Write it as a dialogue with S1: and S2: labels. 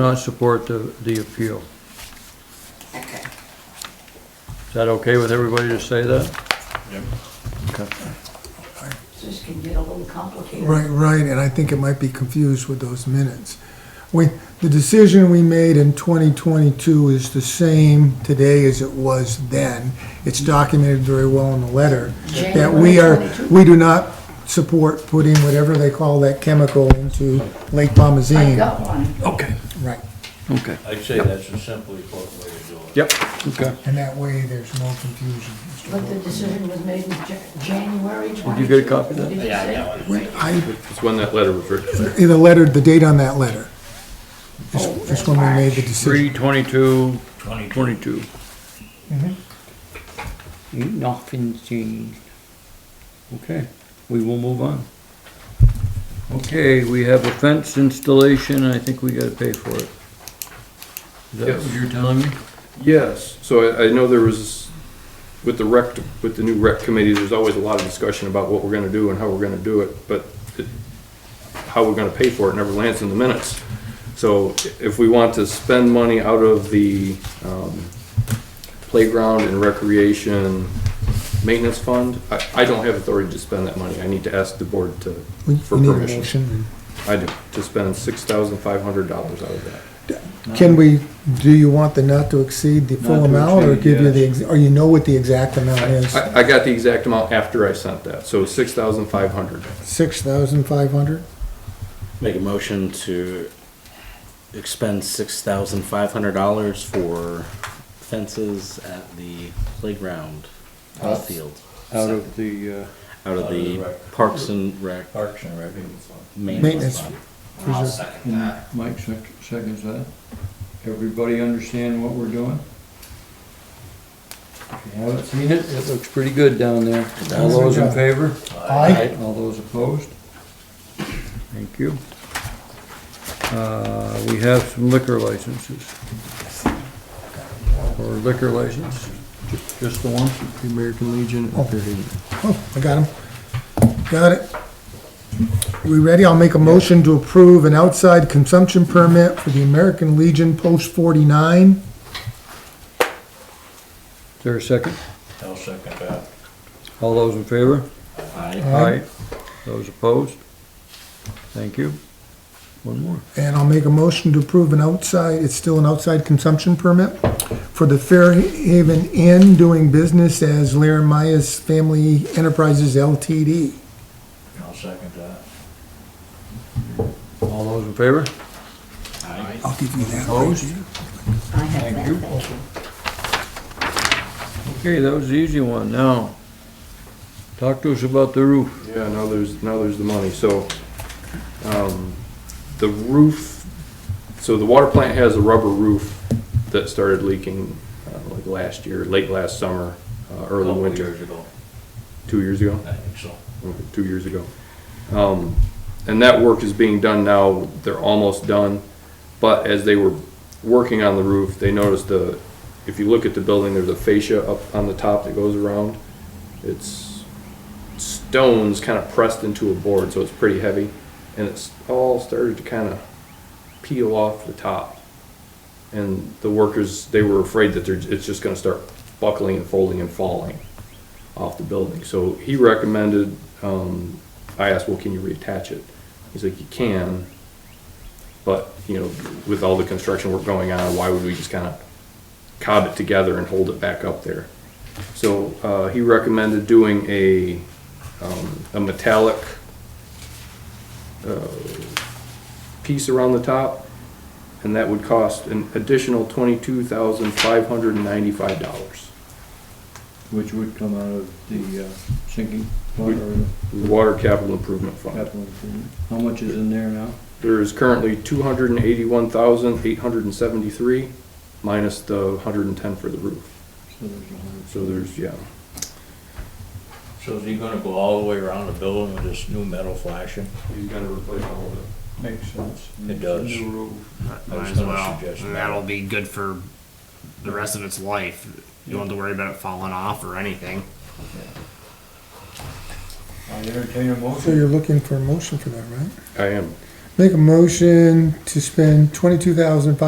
S1: not support the, the appeal.
S2: Okay.
S1: Is that okay with everybody to say that?
S2: This can get a little complicated.
S3: Right, right, and I think it might be confused with those minutes. We, the decision we made in 2022 is the same today as it was then. It's documented very well in the letter. That we are,
S2: January 22.
S3: we do not support putting whatever they call that chemical into Lake
S2: I
S3: Bomazene.
S2: got one.
S1: Okay.
S3: Right,
S1: Okay.
S4: I'd say that's a simply put way to do it.
S1: Yep, okay.
S3: and that way there's no confusion. Mr.
S2: But the decision was made in Ja- January 22.
S1: Did you get a copy of that?
S2: Did you say?
S3: When I,
S5: It's when that letter was written.
S3: in the letter, the date on that letter is is when we made the decision.
S1: Three twenty-two,
S4: Twenty-two,
S1: twenty-two.
S3: Mm-hmm.
S6: Nothing's changed.
S1: Okay, we will move on. Okay, we have a fence installation, and I think we gotta pay for it. Is that what
S5: Yes.
S1: you're telling me?
S5: Yes, so I, I know there was, with the rec, with the new rec committee, there's always a lot of discussion about what we're gonna do and how we're gonna do it, but it- how we're gonna pay for it never lands in the minutes. So if we want to spend money out of the, um, playground and recreation maintenance fund, I, I don't have authority to spend that money. I need to ask the board to,
S3: We
S5: for
S3: we need a
S5: permission.
S3: motion.
S5: I do, to spend six thousand five hundred dollars out of that.
S3: Can we, do you want the not to exceed the
S1: Not to
S3: full amount, or
S1: exceed,
S3: give you the,
S1: yes.
S3: ex- or you know what the exact amount is?
S5: I, I got the exact amount after I sent that, so six thousand five hundred.
S3: Six thousand five hundred?
S7: Make a motion to expend six thousand five hundred dollars for fences at the playground, ball field,
S1: Out of the, uh,
S7: out of
S4: Out of the
S7: the
S4: rec.
S7: Parks and Rec
S4: Parks and Rec.
S3: Maintenance.
S7: maintenance fund.
S3: I'll
S4: second
S1: uh, Mike sec- seconds that. Everybody understand what we're doing? If you haven't seen it, it looks pretty good down there. All those in favor?
S3: Aye.
S1: All those opposed? Thank you. Uh, we have some liquor licenses. Or liquor license, Ju- just the one?
S5: American Legion.
S3: Oh, I got him. Got it. We ready? I'll make a motion to approve an outside consumption permit for the American Legion Post forty-nine.
S1: Is there a second?
S4: I'll second that.
S1: All those in favor?
S7: Aye.
S1: Aye. Those opposed? Thank you. One more.
S3: And I'll make a motion to approve an outside, it's still an outside consumption permit for the Fairhaven Inn doing business as Laramia's Family Enterprises LTD.
S4: I'll second that.
S1: All those in favor?
S3: I'll give you that.
S1: Opposed?
S2: I have that, thank you.
S1: Okay, that was the easy one. Now, talk to us about the roof.
S5: Yeah, now there's, now there's the money, so, um, the roof, so the water plant has a rubber roof that started leaking, uh, like last year, late last summer, uh, early
S4: Couple
S5: winter,
S4: Oh, Years ago,
S5: two years ago?
S4: I think so.
S5: over uh, two years ago. Um, and that work is being done now, they're almost done. But as they were working on the roof, they noticed the, if you look at the building, there's a fascia up on the top that goes around. It's stones kind of pressed into a board, so it's pretty heavy. And it's all started to kind of peel off the top. And the workers, they were afraid that they're, it's just gonna start buckling and folding and falling off the building. So he recommended, um, I asked, well, can you reattach it? He's like, you can, but, you know, with all the construction work going on, why would we just kind of cob it together and hold it back up there? So, uh, he recommended doing a, um, a metallic, uh, piece around the top, and that would cost an additional twenty-two thousand five hundred and ninety-five dollars.
S1: Which would come out of the uh, sinking
S5: fund Water capital improvement fund.
S1: How much is in there now?
S5: There is currently two hundred and eighty-one thousand, eight hundred and seventy-three, minus the hundred and ten for the roof.
S4: Mm-hmm.
S5: So there's, yeah,
S4: So is he gonna go all the way around the building with this new metal flashing?
S5: he's gonna replace all of it.
S1: Makes sense.
S4: It does.
S1: New roof.
S4: was
S7: Might as
S4: gonna
S7: well,
S4: suggest
S7: and that'll be good for the rest of its life. You don't have to worry about it falling off or anything.
S4: I entertain a
S3: So
S4: motion.
S3: you're looking for a motion for that, right?
S5: I am.
S3: Make a motion to spend twenty-two thousand five